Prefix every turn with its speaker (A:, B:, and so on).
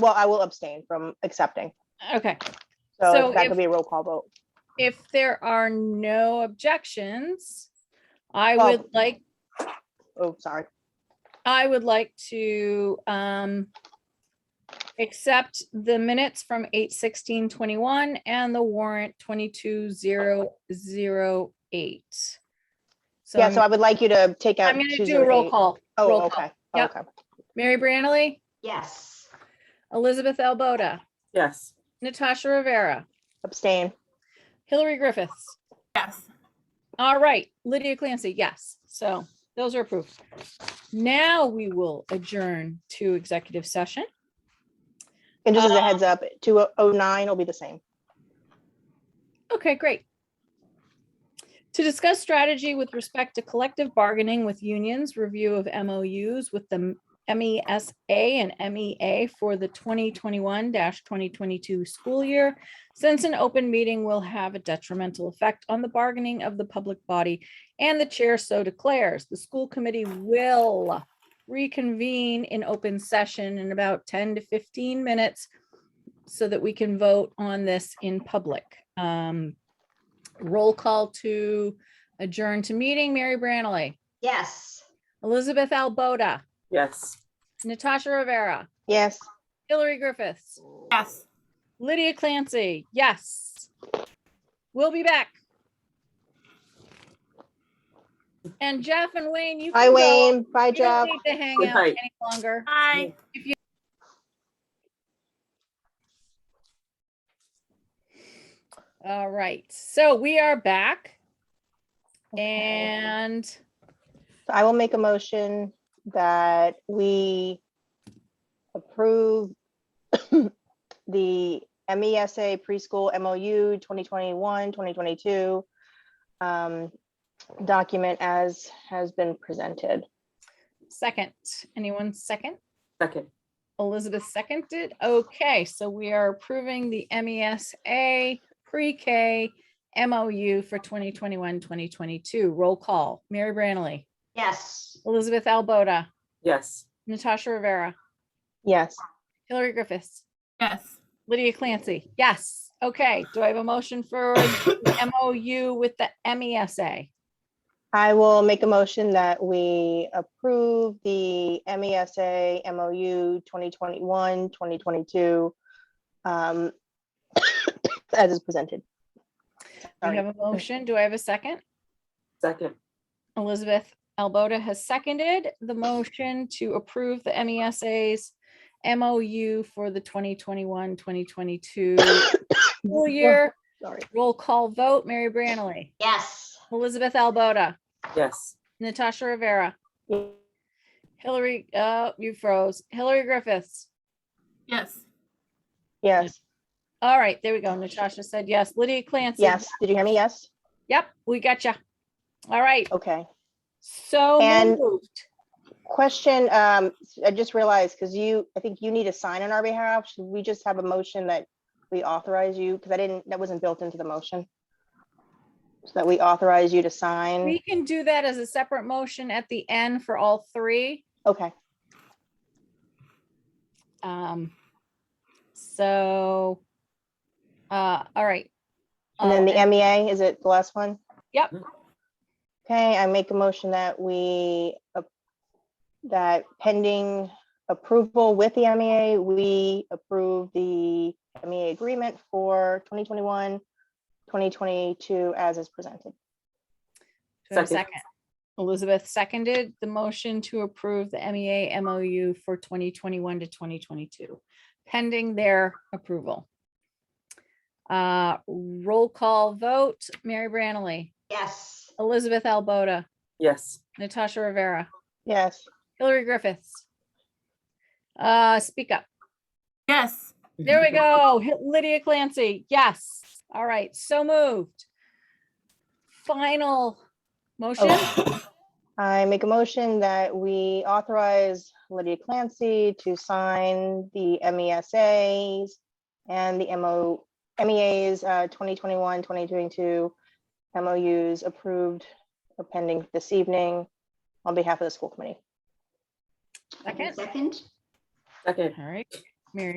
A: well, I will abstain from accepting.
B: Okay, So
A: So that
B: if-
A: could be a roll call vote.
B: if there are no objections, I
A: Well-
B: would like,
A: Oh, sorry.
B: I would like to um accept the minutes from eight sixteen twenty-one and the warrant twenty-two zero zero eight. So
A: Yeah, so I
B: I'm
A: would like you to take out.
B: I'm gonna
A: two
B: do a
A: zero
B: roll
A: eight.
B: call. roll
A: Oh,
B: call.
A: okay,
B: Yep.
A: okay.
B: Mary Brannely,
C: Yes.
B: Elizabeth Albota,
D: Yes.
B: Natasha Rivera,
A: Abstain.
B: Hillary Griffiths,
E: Yes.
B: All right, Lydia Clancy, yes. So those are approved. Now we will adjourn to executive session.
A: And just as a
B: Uh,
A: heads up, two oh nine will be the same.
B: Okay, great. To discuss strategy with respect to collective bargaining with unions, review of MOUs with the MESA and MEA for the 2021-2022 school year. Since an open meeting will have a detrimental effect on the bargaining of the public body and the chair so declares, the school committee will reconvene in open session in about 10 to 15 minutes so that we can vote on this in public. Um, Roll call to adjourn to meeting, Mary Branley,
C: Yes.
B: Elizabeth Albota,
D: Yes.
B: Natasha Rivera,
A: Yes.
B: Hillary Griffiths,
E: Yes.
B: Lydia Clancy, yes. We'll be back. And Jeff and Wayne, you.
A: Bye,
B: can go.
A: Wayne. Bye,
B: You don't
A: Jeff.
B: need to hang
D: Good
B: out
D: night.
B: any longer.
E: Bye.
B: All right, so we are back.
A: Okay.
B: And
A: So I will make a motion that we approve the MESA preschool MOU 2021, 2022 um, document as has been presented.
B: second, anyone second?
D: Second.
B: Elizabeth seconded. Okay, so we are approving the MESA pre-K MOU for 2021, 2022. Roll call. Mary Branley,
C: Yes.
B: Elizabeth Albota,
D: Yes.
B: Natasha Rivera,
A: Yes.
B: Hillary Griffiths,
E: Yes.
B: Lydia Clancy. Yes. Okay, do I have a motion for the MOU with the E MESA?
A: I will make a motion that we approve the E MESA MOU 2021, 2022 um, as is presented.
B: Do we
A: Sorry.
B: have a motion? Do I have a second?
D: Second.
B: Elizabeth Albota has seconded the motion to approve the E MESA's MOU for the 2021, 2022 school year.
A: Sorry.
B: Roll call vote, Mary Branley,
C: Yes.
B: Elizabeth Albota,
D: Yes.
B: Natasha Rivera,
A: Yes.
B: Hillary, uh, you froze, Hillary Griffiths.
E: Yes.
A: Yes.
B: All right, there we go. Natasha said yes. Lydia Clancy.
A: Yes. Did you hear me? Yes.
B: Yep, we got you. All right,
A: Okay.
B: so
A: And-
B: moved.
A: Question, um, I just realized, because you, I think you need a sign on our behalf. Should we just have a motion that we authorize you? Because I didn't, that wasn't built into the motion. So that we authorize you to sign.
B: We can do that as a separate motion at the end for all three.
A: Okay.
B: Um, so, uh, all right.
A: And then
B: Uh,
A: the MEA, is it the last one?
B: Yep.
A: Okay, I make a motion that we, ap- that pending approval with the MEA, we approve the MEA agreement for 2021, 2022 as is presented.
B: do I have a
D: Second.
B: Second. Elizabeth seconded the motion to approve the E MEA MOU for twenty twenty-one to twenty twenty-two, pending their approval. Uh, roll call vote, Mary Branley,
C: Yes.
B: Elizabeth Albota,
D: Yes.
B: Natasha Rivera,
A: Yes,
B: Hillary Griffiths. Uh, speak up.
E: Yes.
B: There we go. Hit Lydia Clancy. Yes. All right. So moved. Final motion.
A: I make a motion that we authorize Lydia Clancy to sign the MESAs and the MO, MEAs, uh, 2021, 2022 MOUs approved or pending this evening on behalf of the school committee.
B: Second.
C: Second?
D: Second.
B: All right. Mary